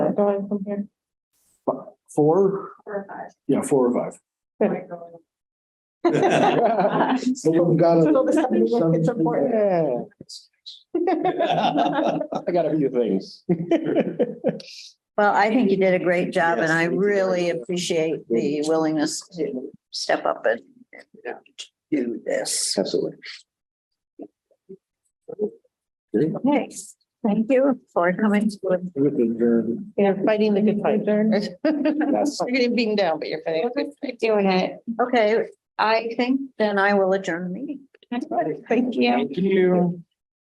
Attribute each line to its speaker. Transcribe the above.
Speaker 1: going from here?
Speaker 2: Four,
Speaker 3: Four or five.
Speaker 2: yeah, four or five.
Speaker 1: Good.
Speaker 2: So we've got a-
Speaker 1: So this is like it's important.
Speaker 2: Yeah, I got a few things.
Speaker 4: Well, I think you did a great job and I
Speaker 2: Yes, you did.
Speaker 4: really appreciate the willingness to step up and do this.
Speaker 2: Absolutely.
Speaker 4: Thanks. Thank you for coming. to
Speaker 2: With the adjourn.
Speaker 1: Yeah, fighting the good fight.
Speaker 2: Yes.
Speaker 1: You're getting beaten down, but you're fighting.
Speaker 3: Doing it.
Speaker 4: Okay, I think then I will adjourn the meeting.
Speaker 3: Thank you.
Speaker 2: Thank you.